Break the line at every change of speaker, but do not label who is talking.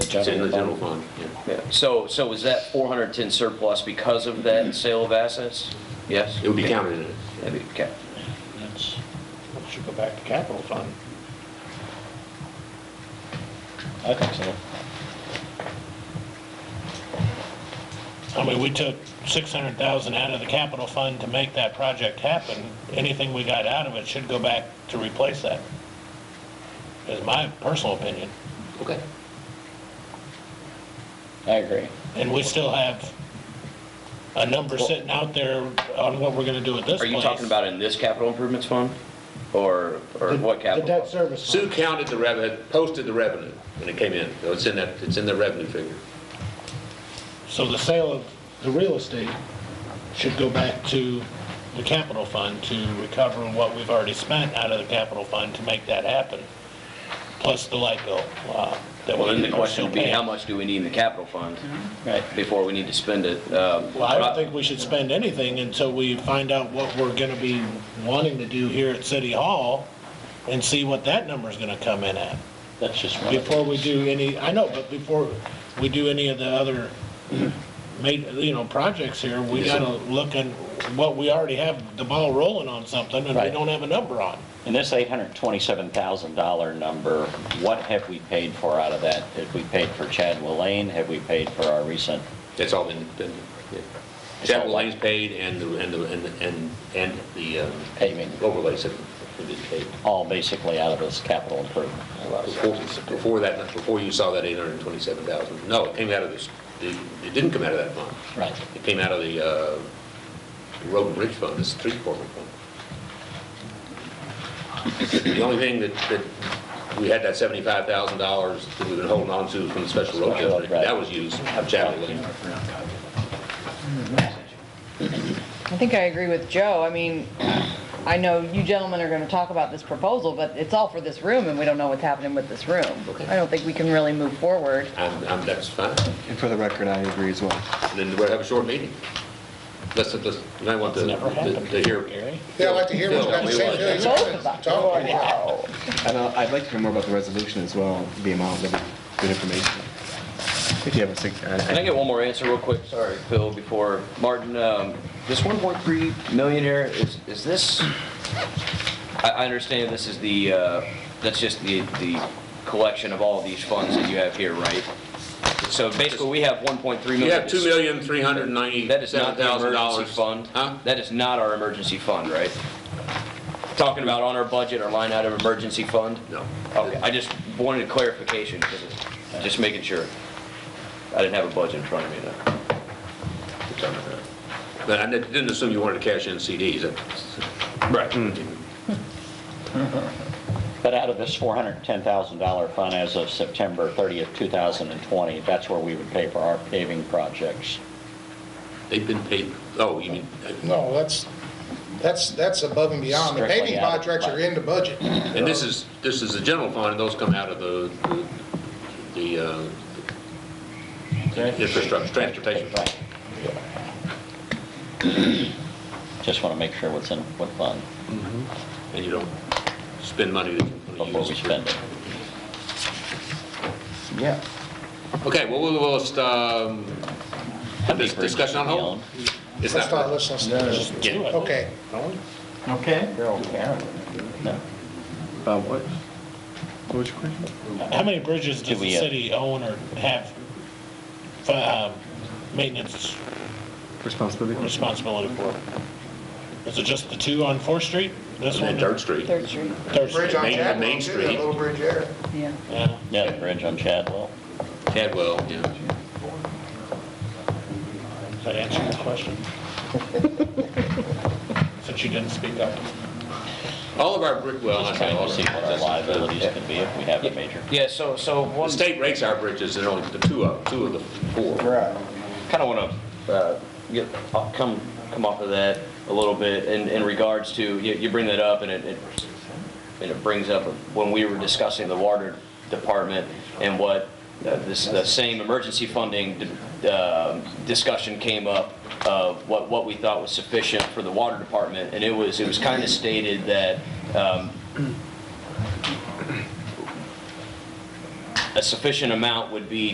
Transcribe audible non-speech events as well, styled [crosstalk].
It's in the general fund, yeah.
Yeah. So, so is that 410 surplus because of that sale of assets? Yes?
It would be counted in it.
That'd be- Okay.
That's, that should go back to capital fund. I think so.
I mean, we took 600,000 out of the capital fund to make that project happen. Anything we got out of it should go back to replace that, is my personal opinion.
Okay.
I agree.
And we still have a number sitting out there on what we're gonna do with this
Are
place.
you talking about in this capital improvements fund? Or, or what
The debt
capital?
service.
Sue counted the revenue, posted the revenue when it came in. So it's in that, it's in the revenue figure.
So the sale of the real estate should go back to the capital fund to recover what we've already spent out of the capital fund to make that happen, plus the light bill. uh, that
Well, then the
we are
question would be,
still paying.
how much do we need in the capital fund
Mm-hmm.
Right.
before we need to spend it? Um,
Well, I
but
don't think we should spend anything until we find out what we're gonna be wanting to do here at City Hall and see what that number's gonna come in at.
That's just one of
Before we
these.
do any, I know, but before we do any of the other made, you know, projects here, we
Yes, sir.
gotta look at what we already have the ball rolling on something and we
Right.
don't have a number on.
And this $827,000 number, what have we paid for out of that? Have we paid for Chadwell Lane? Have we paid for our recent,
That's all been, been, yeah. Chapel Lane's paid and the, and the, and, the- and, and the um,
Paving.
Overlays have been paid.
all basically out of this capital improvement?
Before before that, before you saw that 827,000. No, it came out of this, it it didn't come out of that fund.
Right.
It came out of the uh, Road and Bridge Fund, it's three quarter fund. The only thing that, that, we had that seventy-five thousand dollars that we've been holding on to from the special road
Special road,
district,
right.
that was used, of Chadwick Lane.
I think I agree with Joe. I mean, I know you gentlemen are gonna talk about this proposal, but it's all for this room, and we don't know what's happening with this room.
Okay.
I don't think we can really move forward.
I'm, I'm, that's fine,
And for the record, I agree as well.
and then we'll have a short meeting. Let's, let's, you might want to,
It's never
to
happened
to hear.
before, Gary.
Yeah, I'd like to hear what's
Phil,
got to
we want-
say.
Both of us.
Talk.
And uh, I'd like to hear more about the resolution as well, the amount of good information. If you have a sec. uh,
Can I get one more answer real quick? Sorry, Phil, before, Martin, um, this 1.3 million here, is, is this, I, I understand this is the, uh, that's just the, the collection of all these funds that you have here, right? So basically, we have 1.3 million.
You have two million, three hundred and
That is
ninety-seven
not the
thousand dollars.
emergency fund?
Huh?
That is not our emergency fund, right? Talking about on our budget, our line item emergency fund?
No.
Okay, I just wanted clarification, 'cause it's- just making sure. I didn't have a budget in front of me, though.
But I didn't assume you wanted to cash in CDs, that's-
Right. Hmm.
But out of this $410,000 fund as of September 30th, 2020, that's where we would pay for our paving projects.
They've been paid, oh, you mean,
No, that's, that's, that's above and beyond. The
Strictly
paving
out of
contracts are
budget.
in the budget.
and this is, this is the general fund, and those come out of the, the, the, uh, infrastructure, transportation.
Right. Just want to make sure what's in what fund
And you don't spend money that you're gonna
before we
use.
spend it.
Yeah.
Okay, well, we'll, we'll, just, um,
How many
this discussion on
bridges do we
hold?
own?
It's
Let's not,
not,
let's, let's,
yeah.
okay.
Okay.
No.
About what? What was your question?
How many bridges
Do
does
we,
the
uh,
city own or have, um, maintenance
Responsibility?
responsibility for? Is it just the two on Fourth Street? This
And
one?
then Third Street,
Third Street,
Third
Bridge
Street,
on
Main-
Chadwell,
Main
too,
Street.
that little bridge there.
yeah.
yeah.
Yeah, the bridge on Chadwell.
Cadwell, yeah.
Does that answer your
[laughs]
question? Since you didn't speak up.
All of our, bri- well, I
Just
say
trying
all
to
of
see what our
our.
liabilities could be if we have a major.
Yeah, so, so
The
one,
state rates our bridges, and only the two of, two of the four.
kind of want to uh, get, I'll come, come off of that a little bit in, in regards to, you, you bring that up and it, it- and it brings up when we were discussing the water department and what uh, this, the same emergency funding uh, discussion came up of what, what we thought was sufficient for the water department. And it was, it was kind of stated that, um, a sufficient amount would be